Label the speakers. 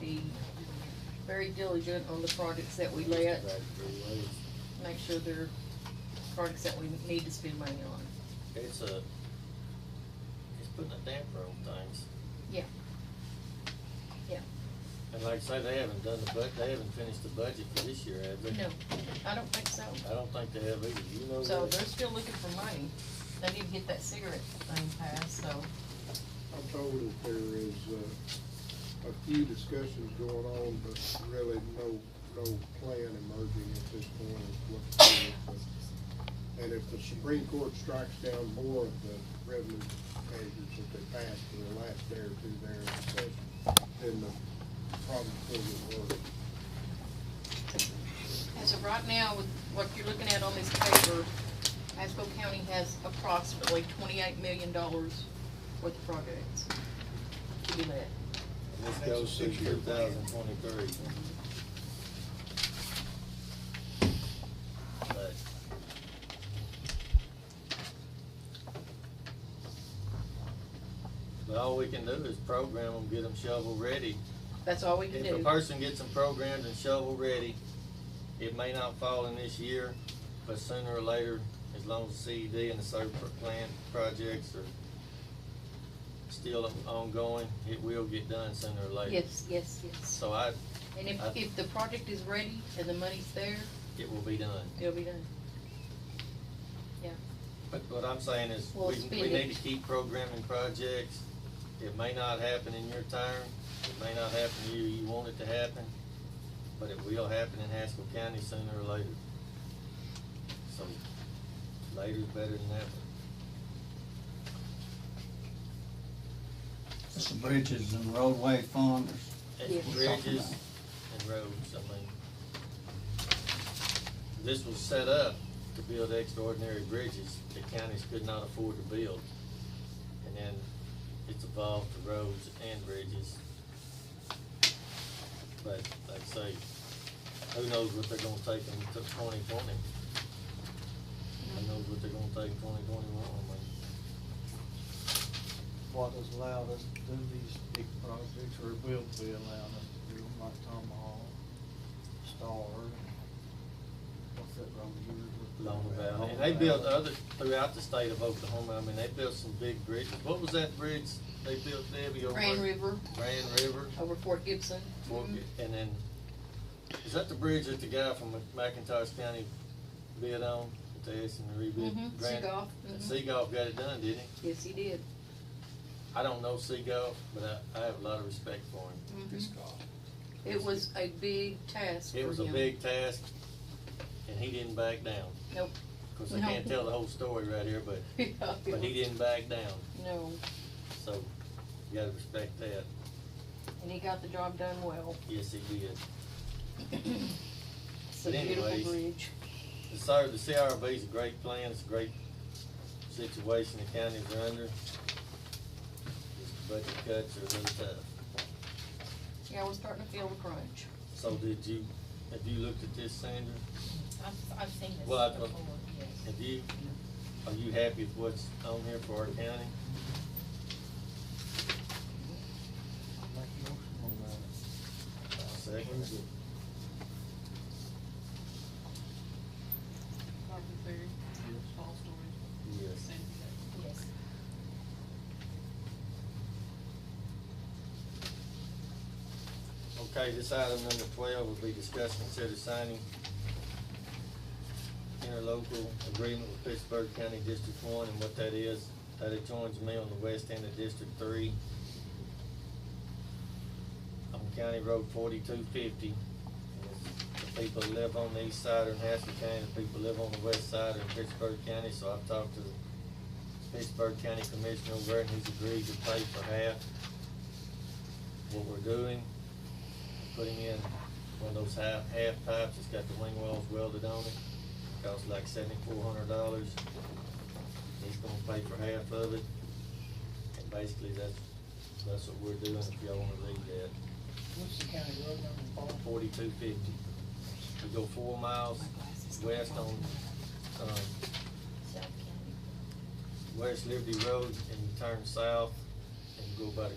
Speaker 1: be very diligent on the projects that we let,
Speaker 2: Back three ways.
Speaker 1: make sure they're projects that we need to spend money on.
Speaker 3: It's a, it's putting a damper on things.
Speaker 1: Yeah. Yeah.
Speaker 3: And like I say, they haven't done the bud, they haven't finished the budget for this year, have they?
Speaker 1: No, I don't think so.
Speaker 3: I don't think they have either, you know.
Speaker 1: So
Speaker 3: that?
Speaker 1: they're still looking for money. They need to get that cigarette thing passed, so,
Speaker 2: I'm told that there is, uh, a few discussions going on, but really no, no plan emerging at this point of what to do. But- And if the Supreme Court strikes down more of the revenue measures that they passed in the last day or two there in session, then the problem will get worse.
Speaker 1: as of right now, with what you're looking at on this paper, Haskell County has approximately twenty-eight million dollars worth of projects to be let.
Speaker 3: And This goes through two thousand twenty-three. But But all we can do is program them, get them shovel-ready,
Speaker 1: That's all we can
Speaker 3: If a
Speaker 1: do.
Speaker 3: person gets them programmed and shovel ready, it may not fall in this year, but sooner or later, as long as the CED and the SERP plan projects are still ongoing, it will get done sooner or later.
Speaker 1: Yes, yes, yes.
Speaker 3: So I,
Speaker 1: And if,
Speaker 3: I-
Speaker 1: if the project is ready and the money's there,
Speaker 3: it will be done.
Speaker 1: it'll be done.
Speaker 3: But what I'm saying is,
Speaker 1: Well,
Speaker 3: we, we
Speaker 1: speed it.
Speaker 3: need to keep programming projects. It may not happen in your time, it may not happen to you, you want it to happen, but it will happen in Haskell County sooner or later. So, later's better than never.
Speaker 4: It's the bridges and roadway funds.
Speaker 3: It's
Speaker 1: Yes.
Speaker 3: bridges and roads, I mean. This was set up to build extraordinary bridges that counties could not afford to build. And then it's evolved to roads and bridges. But like I say, who knows what they're gonna take in twenty twenty? Who knows what they're gonna take in twenty twenty-one, I mean.
Speaker 5: what has allowed us to do these big projects, or will be allowing us to do them, like Tomahawk, Star, what's that road here? with-
Speaker 3: Long Valley, and
Speaker 5: Long
Speaker 3: they built
Speaker 5: Valley.
Speaker 3: other, throughout the state of Oklahoma, I mean, they built some big bridges, what was that bridge they built, Debbie, over?
Speaker 1: Grand River Mm-hmm.
Speaker 3: Grand River,
Speaker 1: over Fort Gibson.
Speaker 3: Fort Gi- and then, is that the bridge that the guy from McIntosh County bid on, that they asked him to rebuild?
Speaker 1: Mhm,
Speaker 3: E Grand-
Speaker 1: Seagull,
Speaker 3: And
Speaker 1: mhm.
Speaker 3: Seagull got it done, didn't he?
Speaker 1: Yes, he did.
Speaker 3: I don't know Seagull, but I, I have a lot of respect for him.
Speaker 1: Mhm. It was a big task for him.
Speaker 3: It was a big task, and he didn't back down,
Speaker 1: Nope.
Speaker 3: cause I
Speaker 1: No.
Speaker 3: can't tell the whole story right here, but, but he didn't back down,
Speaker 1: No,
Speaker 3: so you gotta respect that.
Speaker 1: and he got the job done well.
Speaker 3: Yes, he did.
Speaker 1: It's a
Speaker 3: But
Speaker 1: beautiful
Speaker 3: anyways-
Speaker 1: bridge.
Speaker 3: The CR, the CRB is a great plan, it's a great situation the counties are under. Just Budget cuts are really tough.
Speaker 1: Yeah, we're starting to feel the crunch.
Speaker 3: So did you, have you looked at this, Sandra?
Speaker 6: I've, I've seen this
Speaker 3: Well, I-
Speaker 6: before, yes.
Speaker 3: Have you, are you happy with what's on here for our
Speaker 5: Make
Speaker 3: county?
Speaker 5: a motion on that.
Speaker 3: Second,
Speaker 7: Marvin Berry, Paul Story,
Speaker 3: yes.
Speaker 7: Sandy Day.
Speaker 6: Yes.
Speaker 3: Okay, this item number twelve will be discussed, consider signing interlocal agreement with Pittsburgh County District One, and what that is, that it joins me on the west end of District Three on County Road forty-two fifty. The people that live on the east side are in Haskell County, the people that live on the west side are in Pittsburgh County, so I've talked to the Pittsburgh County Commissioner over there, and he's agreed to pay for half what we're doing putting in one of those half, half pipes that's got the wing wells welded on it. Costs like seventy-four hundred dollars. He's gonna pay for half of it. And basically, that's, that's what we're doing, if y'all wanna read that.
Speaker 5: What's the county road number, Paul?
Speaker 3: Forty-two fifty. We go four miles west on, um,
Speaker 6: South County.
Speaker 3: West Liberty Road and you turn south and go by the